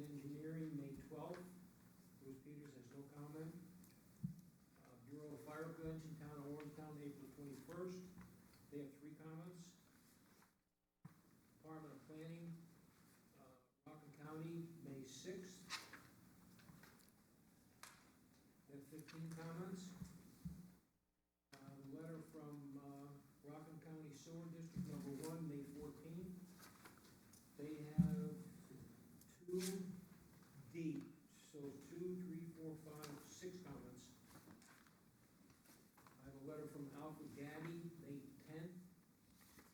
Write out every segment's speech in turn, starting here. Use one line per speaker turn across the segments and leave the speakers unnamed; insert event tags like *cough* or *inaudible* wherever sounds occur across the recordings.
Uh, first, they have three comments. Department of Planning, uh, Rockland County, May sixth. They have fifteen comments. Uh, letter from, uh, Rockland County Sewer District Number One, May fourteenth. They have two D, so two, three, four, five, six comments. I have a letter from Alfred Gaddy, May tenth.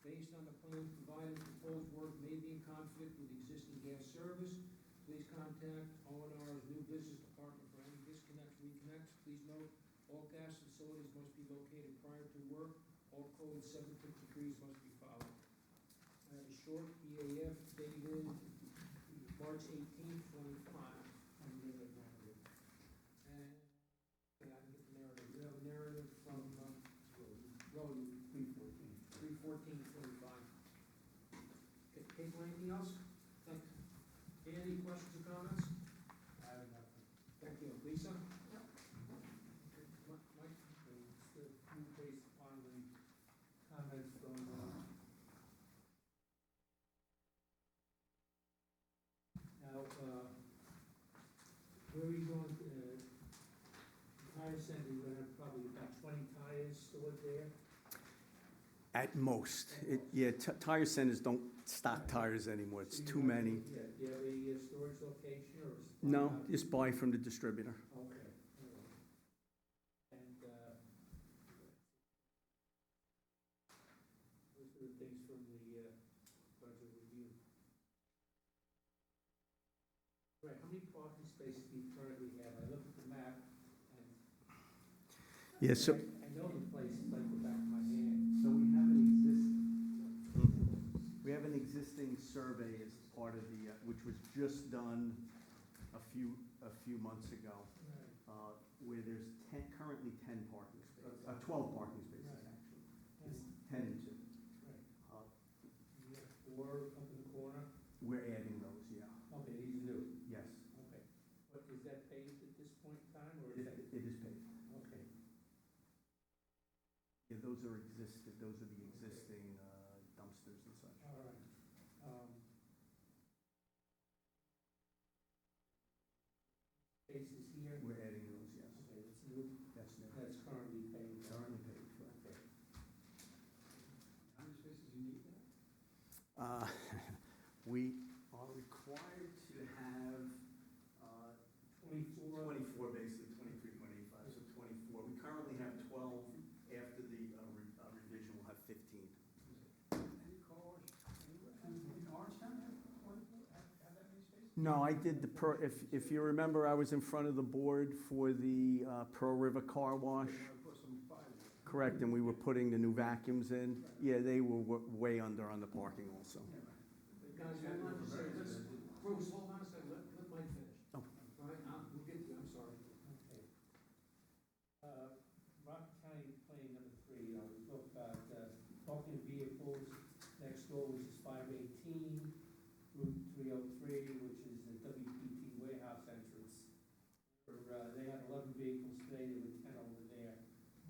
Based on the plans provided, proposed work may be in conflict with existing gas service. Please contact O and R's new business department for any disconnects, reconnects. Please note, all gas facilities must be located prior to work. All code seven fifty-three must be followed. I have a short EAF dated March eighteenth, twenty-five. And, yeah, I can get the narrative, we have a narrative from, um, Rowan, three fourteen forty-five. Okay, Kate, anything else? Thank you. Dan, Any questions or comments?
I have nothing.
Thank you. Lisa?
Yep.
Okay, Mi- Mike?
It's a few based upon the comments from, uh, now, uh, where are you going, uh, tire center, you're gonna have probably about twenty tires stored there?
At most. It, yeah, t- tire centers don't stock tires anymore. It's
So you
too
have any-
many.
Yeah, do you have any uh, storage location or? is-
No, just buy from the distributor.
Okay. all right. And, uh, those are the things from the, uh, budget review. Right, how many parking spaces do you currently have? I looked at the map and.
Yeah, so,
I I know the place like the back of my hand. So we have an existing.
We have an existing survey as part of the, uh, which was just done a few, a few months ago,
Right,
uh, where there's ten, currently ten parking spaces, uh,
Okay.
twelve parking spaces,
Right.
actually. It's
that's
ten and two.
right.
Uh,
You have four up in the corner?
We're adding those, yeah,
Okay, these are new.
yes.
Okay, but is that paved at this point in time, or is
It
that,
it is paid.
okay,
Yeah, those are existing, those are the existing uh, dumpsters and such.
all right. Um, Spaces here,
We're adding those, yes.
okay, that's new,
That's new.
that's currently paved.
Currently paid, correct.
Okay. How many spaces you need now?
Uh, *laughs* We are required to have uh,
Twenty-four.
24, basically 23.85, so 24. We currently have 12. After the uh, re- uh, revision, we'll have 15.
Any cars, anywhere, in Orangetown, have twenty-four, have, have that many spaces?
No, I did the, per- if if you remember, I was in front of the board for the uh, Pearl River Car Wash,
Put some five.
correct, and we were putting the new vacuums in. Yeah, they were wa- way under on the parking also.
Guys, I want to say, let's, Bruce, hold on a second, let, let Mike finish.
Oh.
All right, I'll- we'll get to you, I'm sorry.
Okay. Uh, Rock County plan number three, uh, we talked about, uh, parking vehicles, next door, which is five eighteen, Route three oh three, which is the WPT warehouse entrance. Or, uh, they had eleven vehicles today, there were ten over there,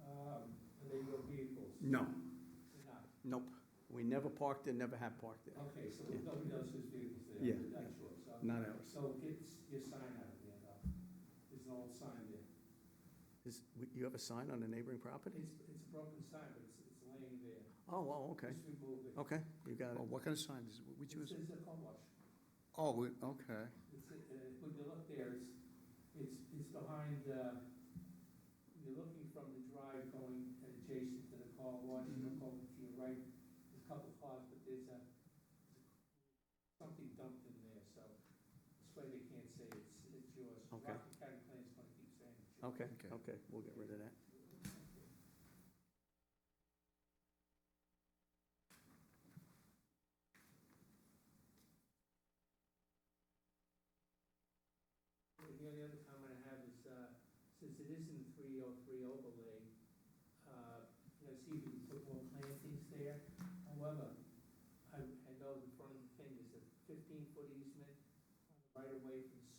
um, are they your vehicles?
No,
They're not,
nope. We never parked there, never have parked there.
okay, so
Yeah.
nobody knows whose vehicles they
Yeah,
are, that's yours, okay.
Not ours.
So get your sign out of there, though, there's an old sign there.
Is- You have a sign on the neighboring property?
It's, it's a broken sign, but it's, it's laying there.
Oh, oh, okay,
Just remove it.
okay, you got it.
Well, what kind of sign is,
It's,
which was,
it's a car wash.
oh, we- okay.
It's, uh, when you look there, it's, it's, it's behind, uh, you're looking from the drive going adjacent to the car wash, you
Mm-hmm.
look over to your right, there's a couple cars, but there's a, something dumped in there, so this way they can't say it's, it's yours.
Okay.
Rockland County Plan's gonna keep saying it's yours.
Okay,
Okay.
okay, we'll get rid of that.
The only other comment I have is, uh, since it is in three oh three overlay, uh, you know, see if you can put more plantings there. However, I, I know the front thing is a fifteen foot easement on the right away from